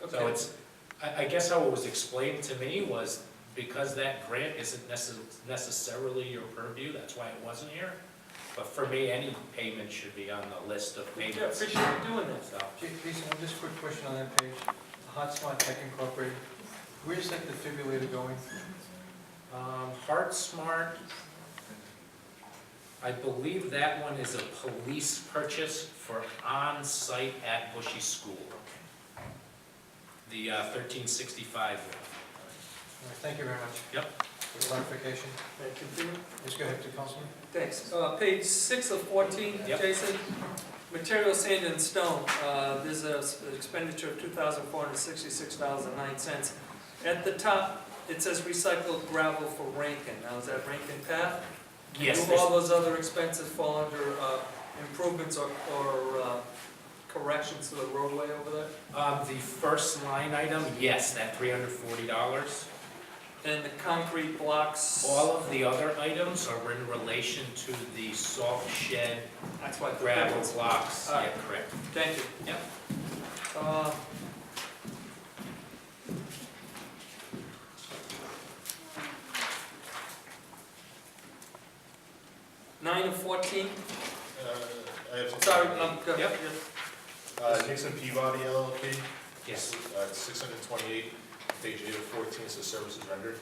So Okay, it's, I, I guess how it was explained to me was because that grant isn't necess- necessarily your purview, that's why it wasn't here. But for me, any payment should be on the list of we payments. appreciate you doing this. So, Ja- Jason, one just quick question on that page, Hotspot Tech Incorporated, where's that defibrillator going? um, Heart Smart, I believe that one is a police purchase for on-site at Bushy School. The uh, thirteen sixty-five one. All right, Thank you very much. Yep. For clarification, Thank you, Peter. just go ahead to Councilman. Thanks. Uh, Page six of fourteen, Yep. Jason, material sand and stone, uh, there's a s- expenditure of two thousand four hundred sixty-six dollars and nine cents. At the top, it says recycled gravel for Rankin, now is that Rankin Path? Yes, Do all there's- those other expenses fall under uh, improvements or or, uh, corrections to the roadway over there? um, the first line item, yes, that three hundred forty dollars. And the concrete blocks? All of the other items are in relation to the salt shed That's why. gravel blocks. Yeah, correct. Thank you. Yep. Uh, Nine of fourteen, Uh, I have some- sorry, um, go Yep. Uh, Nixon Peabody LLP. Yes. Uh, six hundred and twenty-eight, page eight of fourteen, says services rendered.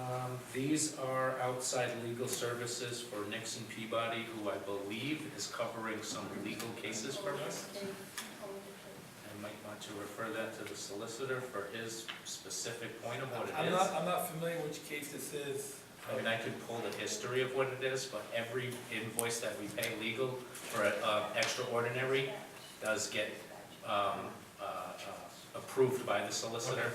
Um, These are outside legal services for Nixon Peabody, who I believe is covering some legal cases for us. I might want to refer that to the solicitor for his specific point of what it I'm is. not, I'm not familiar which case this is. I mean, I could pull the history of what it is, but every invoice that we pay legal for uh, extraordinary does get um, uh, uh, approved by the solicitor.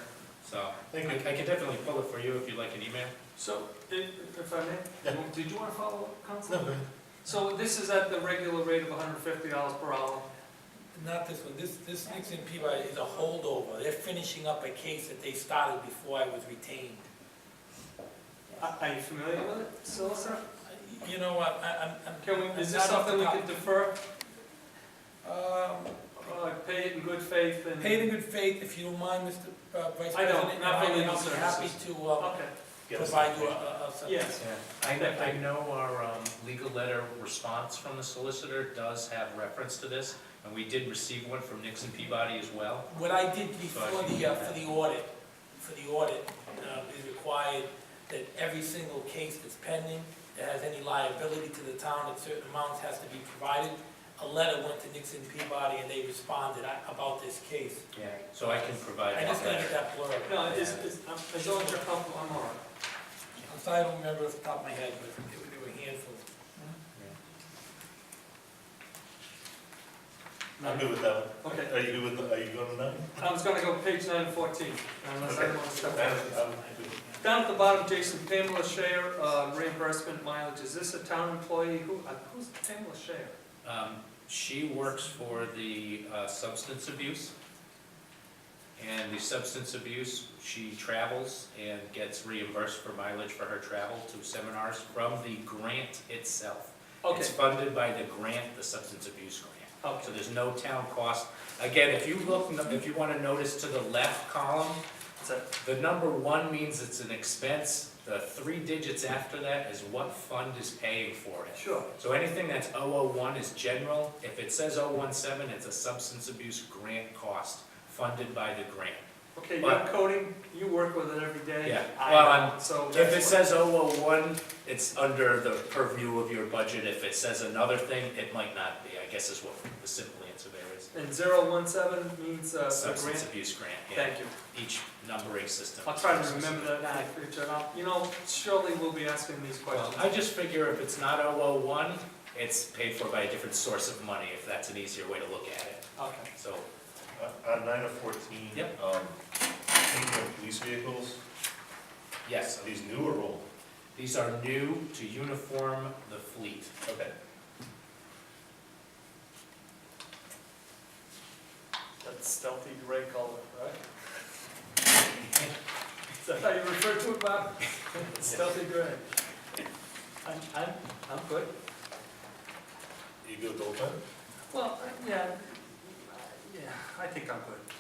So I Thank I can definitely pull it for you if you'd like an email. So, if, if I Yeah. may, did you wanna follow up, No, Council? go ahead. So this is at the regular rate of hundred and fifty dollars per hour, Not this one, this, this Nixon Peabody is a holdover, they're finishing up a case that they started before I was retained. are, are you familiar with it, solicitor? You know, I, I, I'm- I'm. Can we, is this I'm not something we the could defer, top. uh, pay it in good faith Um, and? paid in good faith, if you don't mind, Mr. uh, Vice I don't, President. and not for legal I'll be happy services. to, uh, Okay, Yeah, that's provide you a, fine. a, a- yes, I kn- I know our um, legal letter response from the solicitor does have reference to this, and we did receive one from Nixon Peabody as well. What I did So before I can the, uh, for the audit, for the audit, uh, is required that every single case that's pending, that has any liability to the town, that certain amounts has to be provided. A letter went to Nixon Peabody and they responded uh, about this case. Yeah. So I can provide I just that gotta get letter. that blurb. no, it's, it's, I'm- as long as you're comfortable, I'm all right. I'm sorry, I don't remember off the top of my head, but it were- there were handfuls. I'm good with that one. Okay, Are you good with, are you going to nine? I was gonna go page nine fourteen, unless Okay. anyone stepped I'm- in. I'm good. Down at the bottom, Jason, Pamela Shayer, uh, reimbursement mileage, is this a town employee, who, uh, who's Pamela Shayer? Um, She works for the uh, substance abuse. And the substance abuse, she travels and gets reimbursed for mileage for her travel to seminars from the grant itself. It's Okay, funded by the grant, the substance abuse grant. So okay, there's no town cost. Again, if you look, if you want to notice to the left column, so, the number one means it's an expense. The three digits after that is what fund is paying for it. sure, So anything that's 001 is general. If it says 017, it's a substance abuse grant cost funded by the grant. okay, But- you're coding, you work with it every day. Yeah, I well, don't, I'm- So If it that's what, says 001, it's under the purview of your budget. If it says another thing, it might not be, I guess is what the simple answer there is. and zero one seven means, uh, the Substance grant, abuse grant, yeah. thank you. Each numbering system. I'll is try to substance remember abuse. that in the future, and I'll, you know, surely we'll be asking these Well, questions. I just figure if it's not 001, it's paid for by a different source of money, if that's an easier way to look at it. Okay, So, Uh, On nine of fourteen. Yep. um, Thinking of police vehicles, yes, are these new or old? these are new to uniform the fleet. Okay. that's stealthy gray color, right? Is that how you refer to it, Bob? Stealthy gray. I'm, I'm, I'm good. You good with old time? uh, Well, yeah, yeah, I think I'm good.